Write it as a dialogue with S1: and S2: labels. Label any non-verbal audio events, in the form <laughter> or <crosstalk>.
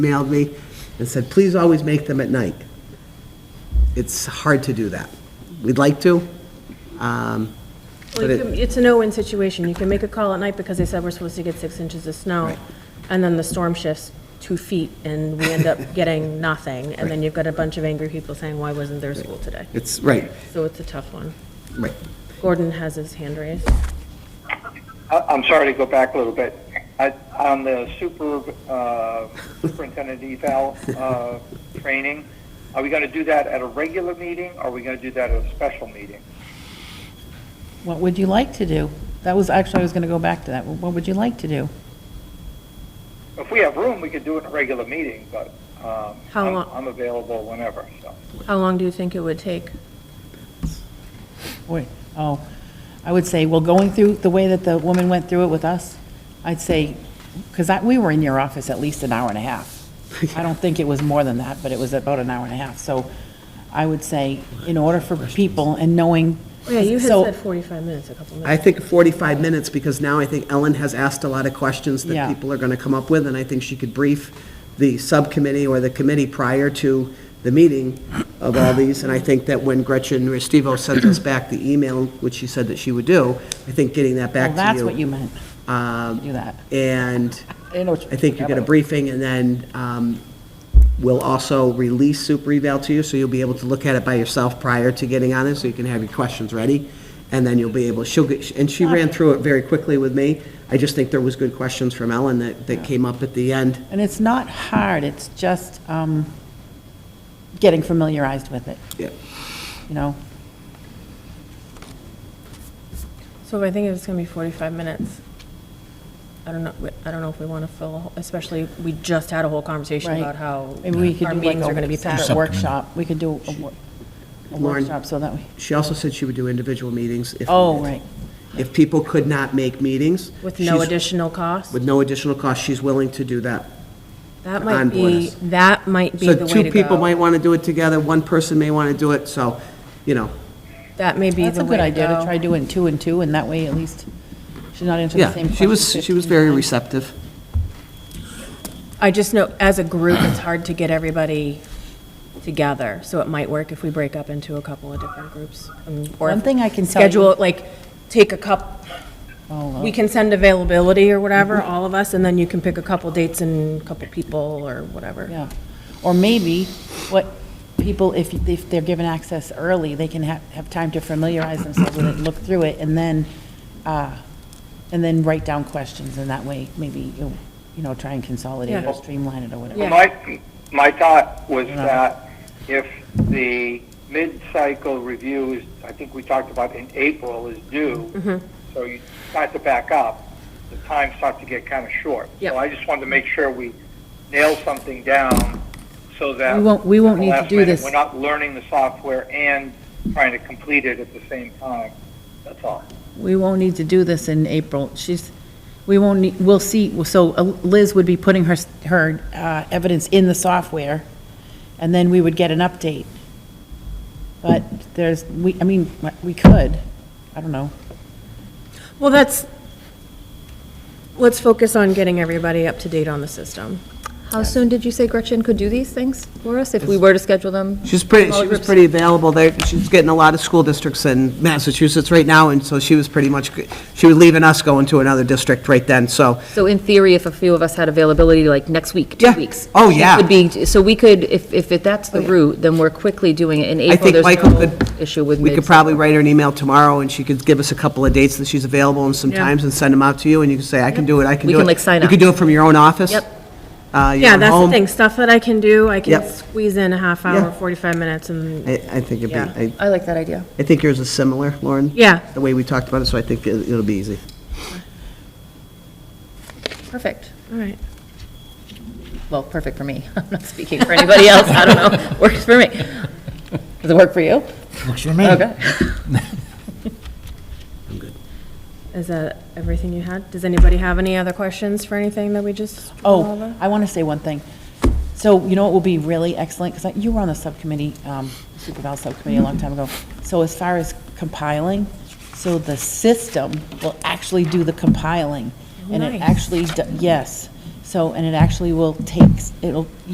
S1: emailed me and said, please always make them at night. It's hard to do that. We'd like to, um,
S2: Well,
S1: but
S2: you
S1: it,
S2: can- It's a no-win situation. You can make a call at night because they said we're supposed to get six inches of snow,
S1: Right.
S2: and then the storm shifts two feet, and we
S1: <laughs>
S2: end up getting nothing, and then you've got a bunch of angry people saying, why wasn't there school today?
S1: it's, right,
S2: So it's a tough one.
S1: right.
S2: Gordon has his hand raised.
S3: I- I'm sorry to go back a little bit. I- On the super, uh, superintendent eval uh, training, are we going to do that at a regular meeting, or are we going to do that at a special meeting?
S4: What would you like to do? That was, actually, I was going to go back to that. What would you like to do?
S3: If we have room, we could do it in a regular meeting, but um,
S2: How
S3: I'm
S2: long-
S3: I'm available whenever, so.
S2: How long do you think it would take?
S4: Wait, oh, I would say, well, going through the way that the woman went through it with us, I'd say, because I, we were in your office at least an hour and
S1: <laughs>
S4: a half. I don't think it was more than that, but it was about an hour and a half. So I would say, in order for people and knowing.
S2: Oh, Yeah, you had
S4: so-
S2: said 45 minutes, a couple
S1: I
S2: minutes.
S1: think 45 minutes, because now I think Ellen has asked a lot of questions that
S4: Yeah.
S1: people are going to come up with, and I think she could brief the subcommittee or the committee prior to the meeting of all these, and I think that when Gretchen Restivo sends us back the email, which she said that she would do, I think getting that back
S4: Well,
S1: to you.
S4: that's what you meant,
S1: um,
S4: do that.
S1: And
S4: I didn't know what you-
S1: I think you get a briefing, and then um, we'll also release super eval to you, so you'll be able to look at it by yourself prior to getting on it, so you can have your questions ready. And then you'll be able, she'll get, and she ran through it very quickly with me. I just think there was good questions from Ellen that, that came up at the end.
S4: And it's not hard, it's just um, getting familiarized with it,
S1: Yeah.
S4: you know?
S2: So I think it's going to be 45 minutes. I don't know, I don't know if we want to fill, a whole- especially, we just had a whole conversation
S4: Right.
S2: about how
S4: Maybe we could
S2: our
S4: do like
S2: meetings are going to
S4: a
S2: be packed.
S4: separate workshop. We could do a wor- a
S1: Lauren.
S4: workshop so that we,
S1: She also said she would do individual meetings if.
S4: oh, right.
S1: If people could not make meetings.
S2: With no
S1: she's-
S2: additional cost?
S1: With no additional cost, she's willing to do that.
S2: That
S1: on
S2: might
S1: board
S2: be,
S1: us.
S2: that might be the
S1: So
S2: way
S1: two
S2: to
S1: people might
S2: go.
S1: want to do it together, one person may want to do it, so, you know,
S2: That may be
S4: That's
S2: the
S4: a
S2: way
S4: good
S2: to
S4: idea to
S2: go.
S4: try doing two and two, and that way at least she's not answering the same
S1: yeah,
S4: question.
S1: she was, she was
S4: 15
S1: very
S4: times.
S1: receptive.
S2: I just know, as a group, it's hard to get everybody together, so it might work if we break up into a couple of different groups. um, or
S4: One thing I can tell you-
S2: Schedule, like, take a cup,
S4: Oh,
S2: we can send availability or whatever,
S4: Mm-hmm.
S2: all of us, and then you can pick a couple dates and a couple people or whatever.
S4: Yeah. Or maybe what people, if, if they're given access early, they can have, have time to familiarize themselves with it, look through it, and then, uh, and then write down questions, and that way maybe, you you know, try and consolidate
S2: Yeah.
S4: or streamline it or whatever.
S2: Yeah.
S3: My, my thought was that if the mid-cycle review is, I think we talked about in April, is due,
S4: Mm-hmm.
S3: so you start to back up, the time starts to get kind of short.
S2: Yep.
S3: So I just wanted to make sure we nail something down so that.
S4: We won't- we
S3: at
S4: won't
S3: the
S4: need to
S3: last
S4: do
S3: minute,
S4: this.
S3: We're not learning the software and trying to complete it at the same time. That's all.
S4: We won't need to do this in April. She's, we won't, need- we'll see, so uh, Liz would be putting her, her uh, evidence in the software, and then we would get an update. But there's, we, I mean, we could, I don't know.
S2: Well, that's, let's focus on getting everybody up to date on the system.
S5: How soon did you say Gretchen could do these things for us if we were to schedule them?
S1: She's pretty,
S5: Small
S1: she was
S5: groups.
S1: pretty available there, she's getting a lot of school districts in Massachusetts right now, and so she was pretty much, g- she was leaving us, going to another district right then, so,
S5: So in theory, if a few of us had availability like next week, two
S1: Yeah.
S5: weeks.
S1: Oh,
S5: she
S1: yeah. Oh,
S5: Could be, so we could, if, if it- that's the route, then we're quickly doing it in
S1: I
S5: April.
S1: think
S5: There's
S1: Michael
S5: no
S1: could.
S5: Issue with
S1: We could
S5: mid-cycle.
S1: probably write her an email tomorrow, and she could give us a couple of dates that she's available and some
S2: Yeah.
S1: times, and send them out to you, and you can say, I can do it, I can
S5: We
S1: do it.
S5: can, like, sign
S1: You
S5: up.
S1: could do it from your own office.
S5: Yep.
S1: Uh, your
S2: Yeah,
S1: own
S2: that's the
S1: home.
S2: thing, stuff that I can do, I can
S1: Yep.
S2: squeeze in a half hour,
S1: Yeah.
S2: 45 minutes, and
S1: I, I think it'd be,
S2: Yeah.
S1: I,
S5: I like that idea.
S1: I think yours is similar, Lauren.
S2: Yeah.
S1: The way we talked about it, so I think it- it'll be easy.
S5: Perfect.
S2: All right.
S5: Well, perfect for me. <laughs> I'm not speaking for anybody else. I don't know. <laughs> Works for me. Does it work
S1: <clears throat>
S5: for you?
S6: Works for me.
S5: Okay.
S2: Is that everything you had? Does anybody have any other questions for anything that we just? went
S4: Oh,
S2: over?
S4: I want to say one thing. So you know what will be really excellent, because you were on the subcommittee, um, Super Bowl Subcommittee a long time ago. So as far as compiling, so the system will actually do the compiling. And it
S2: Nice.
S4: actually, d- yes. So, and it actually will take, it'll,